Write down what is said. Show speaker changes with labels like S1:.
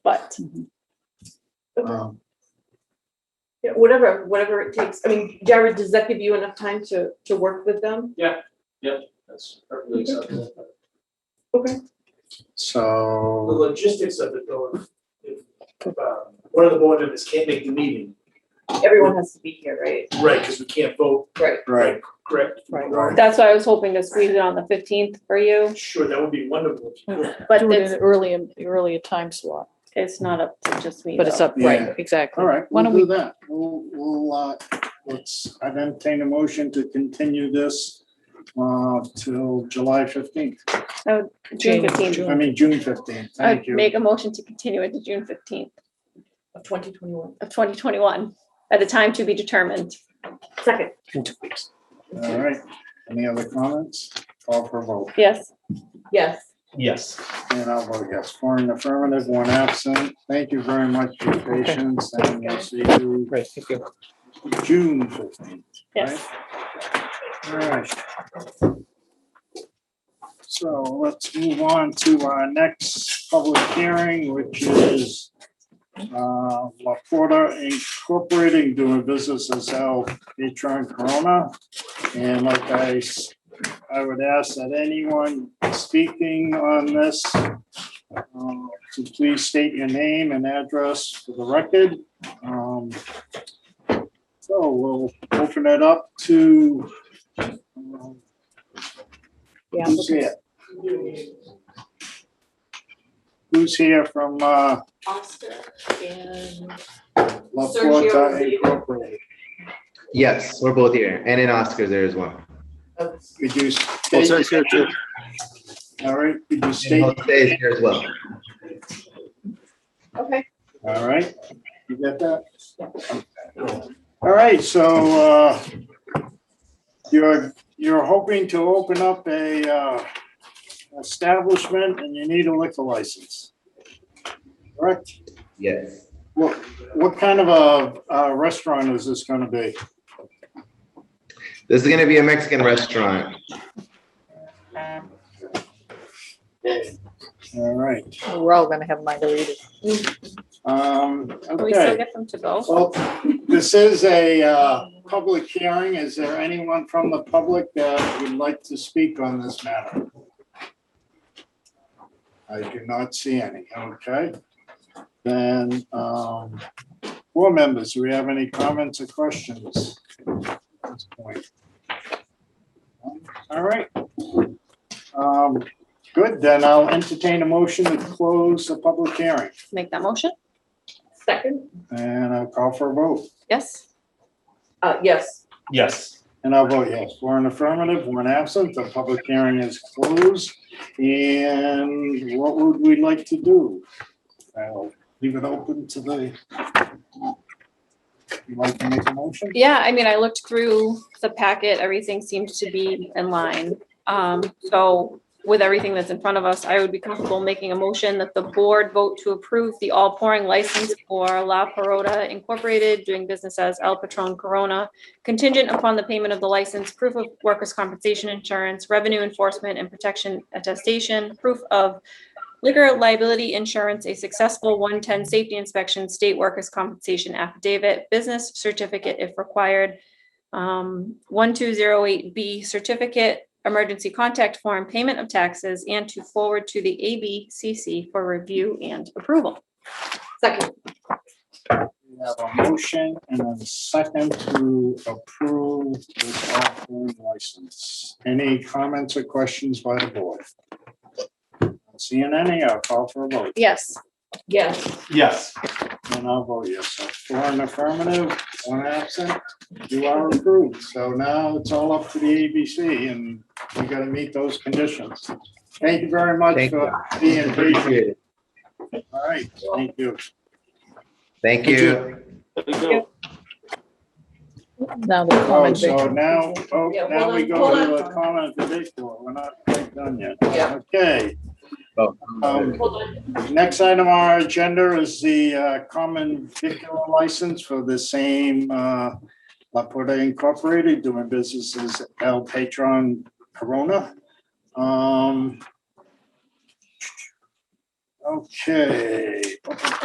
S1: correct.
S2: Um,
S3: Yeah, whatever, whatever it takes. I mean, Jared, does that give you enough time to, to work with them?
S4: That's perfectly acceptable.
S3: Okay.
S4: The
S2: So,
S4: logistics of it though, if, um, one of the board members can't make the meeting,
S3: Everyone has to be here, right?
S4: right, because we can't vote,
S3: Right.
S2: right,
S4: correct?
S2: Right.
S1: That's why I was hoping to squeeze it on the fifteenth for you,
S4: Sure, that would be wonderful.
S1: but
S5: Do it in
S1: it's,
S5: an early, earlier time slot,
S1: it's not up to just me.
S5: but it's
S1: though.
S5: up,
S2: Yeah.
S5: right, exactly.
S2: all right,
S5: Why
S2: we'll
S5: don't
S2: do that. We'll, we'll, uh, let's, I'd entertain a motion to continue this uh, till July fifteenth,
S1: June
S5: June,
S1: fifteenth.
S2: I mean, June fifteenth,
S1: I'd
S2: thank you.
S1: Uh, make a motion to continue it to June fifteenth
S3: Of twenty twenty-one.
S1: of twenty twenty-one, at a time to be determined.
S3: Second.
S2: All right, any other comments? Call for a vote,
S1: Yes,
S3: Yes.
S4: Yes.
S2: and I'll vote yes, four in affirmative, one absent. Thank you very much for your patience, and we'll see you
S6: Great, thank you.
S2: June fifteenth.
S1: yes.
S2: All right. So let's move on to our next public hearing, which is uh, La Porta Incorporating doing business as El Patron Corona. And like I, s- I would ask that anyone speaking on this uh, to please state your name and address for the record. Um, So we'll open it up to um,
S5: Yeah.
S2: Who's here? Who's here from uh,
S3: Oscar and.
S2: La
S3: Sergio
S2: Porta
S3: Rivera.
S2: Incorporated?
S7: Yes, we're both here, and in Oscars there as well.
S2: Could you state, all right, could you
S7: And
S2: state,
S7: Jose is here as well.
S3: Okay.
S2: all right? You got that? All right, so uh, you're, you're hoping to open up a uh, establishment and you need a liquor license. Correct?
S7: Yes.
S2: What, what kind of a uh, restaurant is this going to be?
S7: This is gonna be a Mexican restaurant.
S2: All right.
S5: We're all gonna have margaritas.
S2: Um,
S1: Can we still
S2: okay.
S1: get them to go?
S2: Well, this is a, uh, public hearing. Is there anyone from the public that would like to speak on this matter? I do not see any. Okay. Then, um, board members, do we have any comments or questions? at this point? All right. Um, good, then I'll entertain a motion to close the public hearing.
S1: Make that motion?
S3: Second.
S2: And I'll call for a vote.
S1: Yes,
S3: Uh, yes.
S4: Yes.
S2: And I'll vote yes. Four in affirmative, one absent. The public hearing is closed. And what would we like to do? I'll leave it open to the. You'd like to make a motion?
S1: yeah, I mean, I looked through the packet, everything seemed to be in line. Um, so with everything that's in front of us, I would be comfortable making a motion that the board vote to approve the all pouring license for La Parota Incorporated, doing business as El Patron Corona, contingent upon the payment of the license, proof of workers' compensation insurance, revenue enforcement and protection attestation, proof of liquor liability insurance, a successful one-ten safety inspection, state workers' compensation affidavit, business certificate if required, um, one-two-zero-eight B certificate, emergency contact form, payment of taxes, and to forward to the ABCC for review and approval.
S3: Second.
S2: We have a motion and a second to approve this off-road license. Any comments or questions by the board? Not Seeing any, I'll call for a vote.
S1: Yes,
S3: Yes.
S4: Yes.
S2: And I'll vote yes. So Four in affirmative, one absent. You are approved. So now it's all up to the ABC and we gotta meet those conditions. Thank you very much
S7: Thank
S2: for being patient.
S7: Appreciate it.
S2: All right, thank you.
S7: Thank you.
S5: Now the
S2: Oh,
S5: common
S2: so
S5: vic.
S2: now, oh,
S3: Yeah, hold
S2: now we
S3: on, hold
S2: go to
S3: on.
S2: the comment particular. We're not quite done yet.
S3: Yeah.
S2: Okay,
S7: Oh,
S2: um,
S3: Hold on.
S2: Next item on our agenda is the uh, common vehicular license for the same uh, La Porta Incorporated doing business as El Patron Corona. Um, Okay.